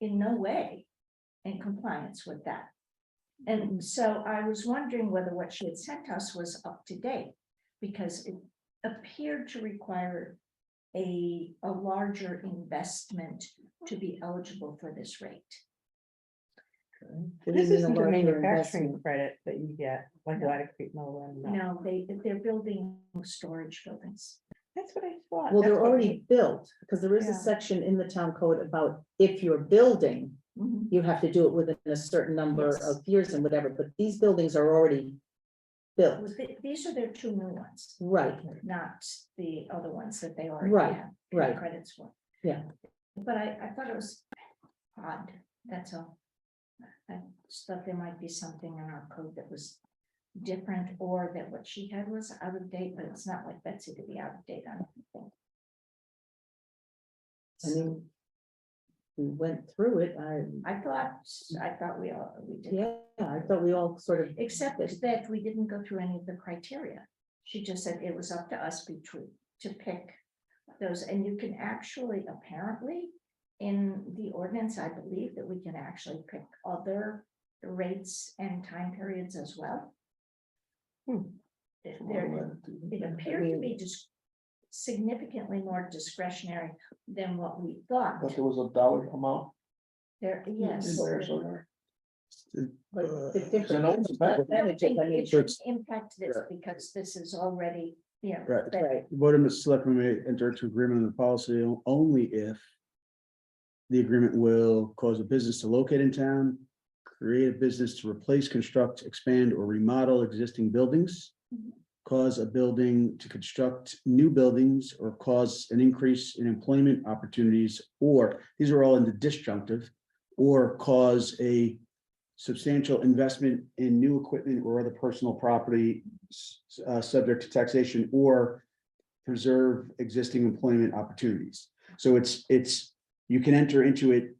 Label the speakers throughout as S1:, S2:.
S1: in no way in compliance with that.
S2: Mm-hmm.
S1: And so I was wondering whether what she had sent us was up to date, because it appeared to require a, a larger investment to be eligible for this rate.
S2: It
S3: This
S2: isn't a
S3: isn't a
S2: larger
S3: manufacturing
S2: investment.
S3: credit that you get, like a lot of Creek Mill and. uh,
S1: No, they, they're building storage buildings.
S3: That's what I thought.
S2: Well,
S3: that's
S2: they're
S3: what
S2: already built, because there is
S3: Yeah.
S2: a section in the town code about if you're building,
S1: Mhm.
S2: you have to do it within a certain number
S1: Yes.
S2: of years and whatever, but these buildings are already built,
S1: Was the- These are their two new ones,
S2: right,
S1: not the other ones that they already
S2: Right,
S1: have. the
S2: right.
S1: Credits for.
S2: Yeah.
S1: But I, I thought it was odd, that's all. I just thought there might be something in our code that was different or that what she had was out of date, but it's not like Betsy to be out of date on. anything.
S2: I mean. We went through it, I,
S1: I thought, I thought we all, we did.
S2: yeah, I thought we all sort of,
S1: Except is that we didn't go through any of the criteria. She just said it was up to us between, to pick those, and you can actually, apparently, in the ordinance, I believe that we can actually pick other rates and time periods as well.
S3: Hmm.
S1: There- There, it appeared to be just significantly more discretionary than what we thought.
S4: But there was a dollar amount.
S1: There,
S4: in
S1: yes.
S4: there somewhere.
S2: but
S4: Uh,
S2: it's
S4: so now
S2: different.
S4: it's back.
S1: I don't
S2: Percentages,
S1: think
S2: I mean,
S1: It should impact this because this is already, you know.
S4: Right.
S1: but-
S2: Right,
S4: The Board of Selectmen may enter into agreement on the policy o- only if the agreement will cause a business to locate in town, create a business to replace, construct, expand, or remodel existing buildings,
S1: Mhm.
S4: cause a building to construct new buildings, or cause an increase in employment opportunities, or, these are all in the disjunctive, or cause a substantial investment in new equipment or other personal property s- uh, subject to taxation or preserve existing employment opportunities. So it's, it's, you can enter into it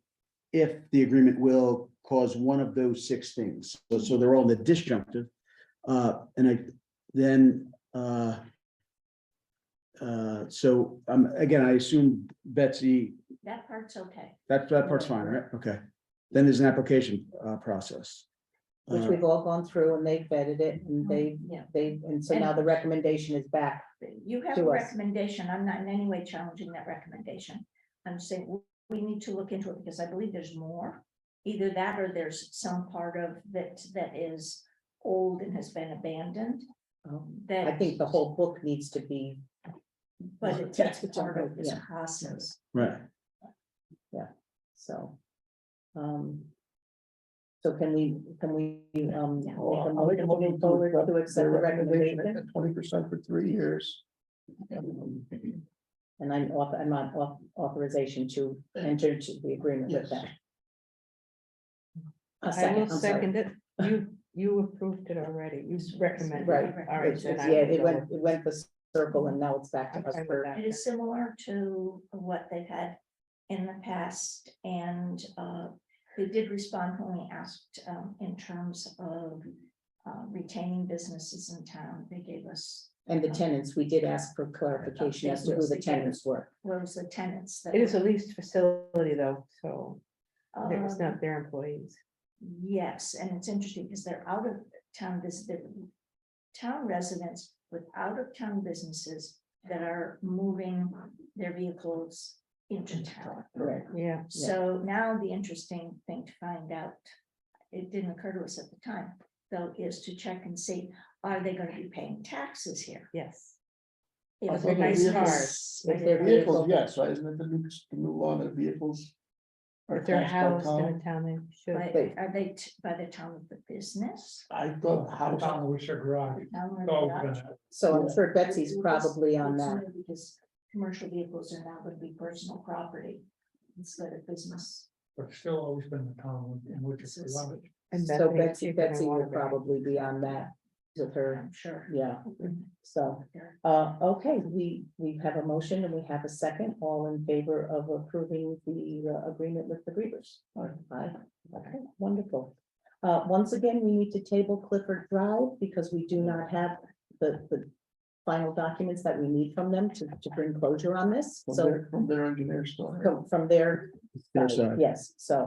S4: if the agreement will cause one of those six things. So, so they're all in the disjunctive. Uh, and I, then, uh, uh, so, um, again, I assume Betsy,
S1: That part's okay.
S4: that, that part's fine, right? Okay. Then there's an application, uh, process.
S2: which
S4: Uh,
S2: we've all gone through and they vetted it and they,
S1: Oh, Yeah,
S2: they, and so now the recommendation is back.
S1: you have a
S2: To us.
S1: recommendation. I'm not in any way challenging that recommendation. I'm saying w- we need to look into it because I believe there's more. Either that or there's some part of that that is old and has been abandoned that.
S2: I think the whole book needs to be
S1: But it's
S2: That's
S1: it's
S2: what I'm
S1: part of this
S2: hoping, yeah.
S1: process.
S4: Right.
S2: So. um, So can we, can we, um,
S1: Yeah.
S2: make a motion moving forward to accept the recommendation?
S5: Twenty percent for three years.
S2: And I'm off, I'm on au- authorization to enter into the agreement with
S5: Yes.
S2: them. A
S3: I
S2: second,
S3: will
S2: I'm sorry.
S3: second it. You, you approved it already. You recommended. it.
S2: Right.
S3: All right.
S2: It's-
S3: then
S2: it's-
S3: I
S2: Yeah,
S3: will
S2: it
S3: go
S2: went,
S3: with-
S2: it went the circle and now it's back to us
S3: Okay with
S2: for
S3: that.
S1: It is similar to what they've had in the past and uh, they did respond when we asked um, in terms of uh, retaining businesses in town. They gave us,
S2: And the tenants, we did ask for clarification as to who the tenants were.
S1: what was the tenants? that
S3: It is
S1: were-
S3: a leased facility though, so it's
S1: Um,
S2: Oh.
S3: not their employees.
S1: Yes, and it's interesting because they're out of town, this, the town residents with out of town businesses that are moving their vehicles into town.
S2: Right.
S3: Yeah.
S2: Yeah.
S1: So now the interesting thing to find out, it didn't occur to us at the time, though, is to check and see, are they gonna be paying taxes here?
S3: Yes.
S1: If
S5: If they're
S1: this-
S3: vehicles.
S2: If they're
S5: Vehicles, yes, right, isn't it the new, the new law that vehicles? are
S3: If they're
S5: taxed by
S3: housed in
S5: town?
S3: a town, they should.
S1: But are they t- by the time of the business?
S5: I thought house,
S6: Town wish or garage.
S1: The town or the
S6: Oh,
S1: lodge?
S6: God.
S2: So I'm sure Betsy's
S1: It's-
S2: probably on
S1: it's
S2: that.
S1: new Because commercial vehicles are now gonna be personal property instead of business.
S6: but still always been the town in which it's allowed.
S3: And
S2: So
S3: Bethany,
S2: Betsy,
S3: you're gonna
S2: Betsy
S3: wanna
S2: will
S3: bring-
S2: probably be on that with her,
S1: I'm sure.
S2: yeah, so.
S1: They're-
S2: Uh, okay, we, we have a motion and we have a second, all in favor of approving the uh, agreement with the Grievers. Aye, okay, wonderful. Uh, once again, we need to table Clifford Drive because we do not have the, the final documents that we need from them to, to bring closure on this,
S5: from
S2: so
S5: their, from their engineer store.
S2: from- from their,
S4: Their side.
S2: yes, so.